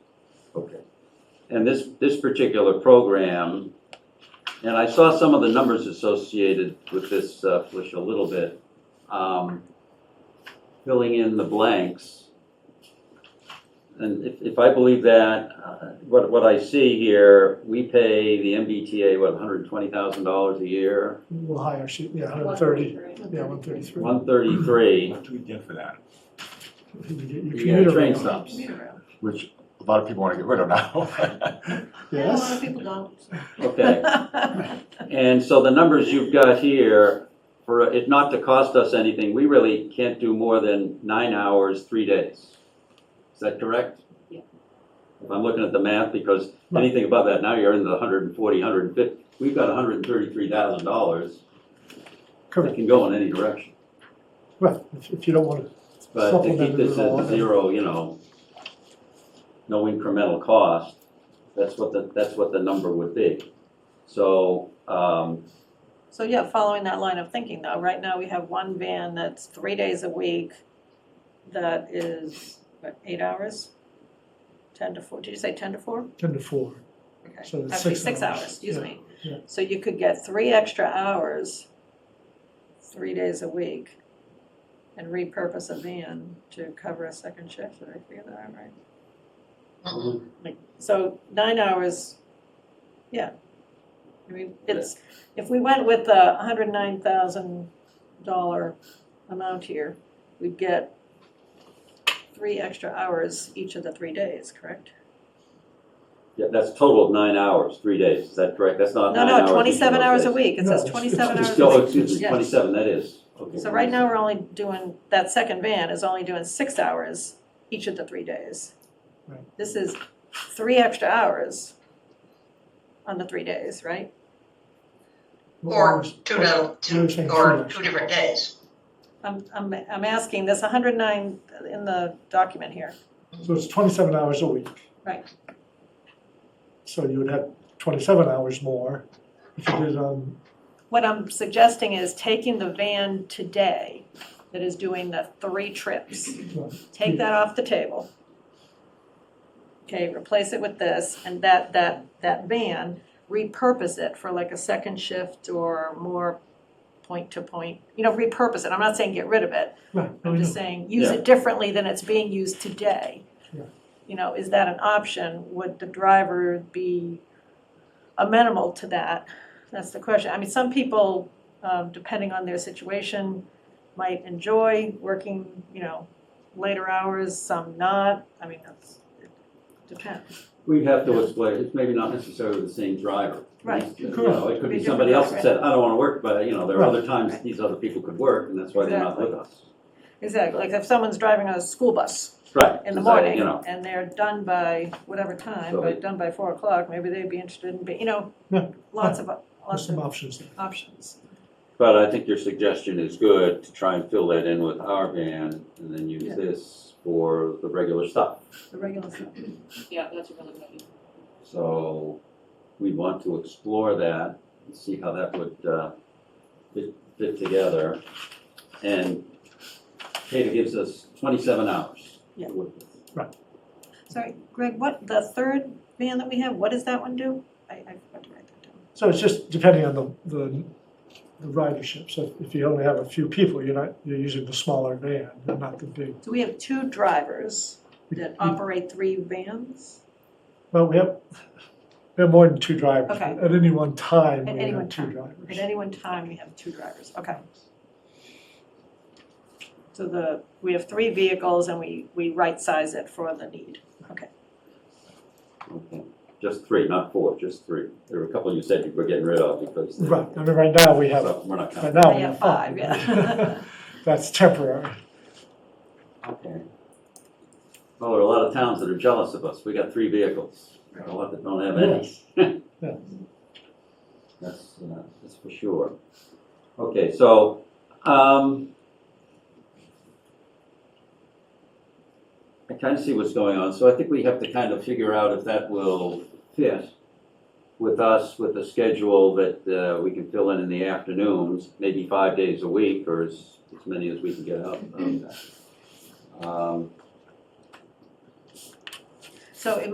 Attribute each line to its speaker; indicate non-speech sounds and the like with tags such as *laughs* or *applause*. Speaker 1: and this, this particular program, and I saw some of the numbers associated with this, uh, Felicia, a little bit, um, filling in the blanks. And if, if I believe that, uh, what, what I see here, we pay the MBTA, what, hundred and twenty thousand dollars a year?
Speaker 2: A little higher, she, yeah, hundred thirty, yeah, one thirty-three.
Speaker 1: One thirty-three,
Speaker 3: What do we get for that?
Speaker 1: you get a train stops.
Speaker 3: Which a lot of people want to get rid of now. *laughs*
Speaker 4: Yeah, a lot of
Speaker 2: Yes,
Speaker 4: people don't.
Speaker 1: Okay, and so the numbers you've got here, for it not to cost us anything, we really can't do more than nine hours, three days. Is that correct?
Speaker 4: Yeah.
Speaker 1: If I'm looking at the math, because
Speaker 2: Right.
Speaker 1: anything above that, now you're in the hundred and forty, hundred and fifty, we've got hundred and thirty-three thousand dollars. It
Speaker 2: correct.
Speaker 1: can go in any direction,
Speaker 2: Well, if, if you don't wanna,
Speaker 1: but to keep
Speaker 2: Supplemented
Speaker 1: this
Speaker 2: it all.
Speaker 1: at zero, you know, no incremental cost, that's what the, that's what the number would be. So, um,
Speaker 4: So yeah, following that line of thinking though, right now we have one van that's three days a week that is, what, eight hours? Ten to four, did you say ten to four?
Speaker 2: ten to four,
Speaker 4: Okay,
Speaker 2: So that's
Speaker 4: Actually,
Speaker 2: six
Speaker 4: six
Speaker 2: hours.
Speaker 4: hours, excuse
Speaker 2: Yeah,
Speaker 4: me.
Speaker 2: yeah.
Speaker 4: So you could get three extra hours, three days a week, and repurpose a van to cover a second shift, did I figure that out right? Like, so nine hours, yeah. I mean, it's, if we went with the hundred nine thousand dollar amount here, we'd get three extra hours each of the three days, correct?
Speaker 1: Yeah, that's total of nine hours, three days, is that correct? That's not
Speaker 4: No,
Speaker 1: nine hours.
Speaker 4: no,
Speaker 1: each
Speaker 4: twenty-seven
Speaker 1: of
Speaker 4: hours
Speaker 1: those
Speaker 4: a
Speaker 1: days.
Speaker 4: week, it
Speaker 2: No,
Speaker 4: says
Speaker 2: it's-
Speaker 4: twenty-seven
Speaker 2: it's-
Speaker 4: hours a week.
Speaker 1: Oh, excuse me,
Speaker 4: Yes.
Speaker 1: twenty-seven, that is. Okay.
Speaker 4: So right now, we're only doing, that second van is only doing six hours each of the three days.
Speaker 2: Right.
Speaker 4: This is three extra hours on the three days, right?
Speaker 2: what
Speaker 5: Or
Speaker 2: hours-
Speaker 5: two
Speaker 2: what-
Speaker 5: to,
Speaker 2: we were saying
Speaker 5: two, or
Speaker 2: three.
Speaker 5: two different days.
Speaker 4: I'm, I'm, I'm asking, there's hundred nine in the document here.
Speaker 2: So it's twenty-seven hours a week.
Speaker 4: Right.
Speaker 2: So you would have twenty-seven hours more if you did um, it on,
Speaker 4: What I'm suggesting is taking the van today that is doing the three trips, take that off the table. Okay, replace it with this, and that, that, that van, repurpose it for like a second shift or more point-to-point, you know, repurpose it, I'm not saying get rid of it,
Speaker 2: right, no,
Speaker 4: I'm
Speaker 2: we
Speaker 4: just
Speaker 2: know,
Speaker 4: saying, use it differently than it's being used today.
Speaker 2: Yeah.
Speaker 4: You know, is that an option? Would the driver be amenable to that? That's the question. I mean, some people, um, depending on their situation, might enjoy working, you know, later hours, some not. I mean, that's, it depends.
Speaker 1: We'd have to explain, it's maybe not necessarily the same driver.
Speaker 4: Right.
Speaker 1: You know, it could
Speaker 4: Be
Speaker 1: be
Speaker 4: different
Speaker 1: somebody else that
Speaker 4: driver.
Speaker 1: said, I don't wanna work, but, you know, there are other times
Speaker 4: Right.
Speaker 1: these other people could work, and that's why they're not with us.
Speaker 4: Exactly, like if someone's driving a school bus
Speaker 1: Right.
Speaker 4: in the
Speaker 1: so,
Speaker 4: morning
Speaker 1: You know,
Speaker 4: and they're done by whatever time,
Speaker 1: So-
Speaker 4: but done by four o'clock, maybe they'd be interested in, be- you know,
Speaker 2: Yeah.
Speaker 4: lots of,
Speaker 2: there's
Speaker 4: lots
Speaker 2: some
Speaker 4: of
Speaker 2: options there.
Speaker 4: options.
Speaker 1: but I think your suggestion is good, to try and fill that in with our van, and then
Speaker 4: Yeah.
Speaker 1: use this for the regular stuff.
Speaker 4: The regular stuff.
Speaker 6: Yeah, that's a really good idea.
Speaker 1: So we want to explore that and see how that would uh, fit, fit together. And Kata gives us twenty-seven hours.
Speaker 4: Yeah.
Speaker 2: Right.
Speaker 4: Sorry, Greg, what, the third van that we have, what does that one do? I, I forgot to write that down.
Speaker 2: So it's just depending on the, the, the ridership, so if you only have a few people, you're not, you're using the smaller van, not the big.
Speaker 4: So we have two drivers
Speaker 2: *laughs*
Speaker 4: that operate three vans?
Speaker 2: Well, we have, we have more than two drivers.
Speaker 4: Okay.
Speaker 2: At any one time,
Speaker 4: At
Speaker 2: we
Speaker 4: any one
Speaker 2: have two
Speaker 4: time.
Speaker 2: drivers.
Speaker 4: At any one time, we have two drivers, okay. So the, we have three vehicles and we, we right-size it for the need.
Speaker 1: Okay. Just three, not four, just three. There were a couple you said you were getting rid of because. they-
Speaker 2: Right, I mean, right now we have,
Speaker 1: So we're not counting.
Speaker 2: right now
Speaker 4: I
Speaker 2: we
Speaker 4: have
Speaker 2: have
Speaker 4: five,
Speaker 2: five.
Speaker 4: yeah.
Speaker 2: *laughs*
Speaker 4: *laughs*
Speaker 2: That's temporary.
Speaker 1: Okay. Well, there are a lot of towns that are jealous of us. We got three vehicles. There are a lot that don't have any.
Speaker 2: Yeah.
Speaker 1: That's, uh, that's for sure. Okay, so, um, I kind of see what's going on, so I think we have to kind of figure out if that will fit with us, with a schedule that, uh, we can fill in in the afternoons, maybe five days a week or as, as many as we can get out. of that. Um,
Speaker 4: So it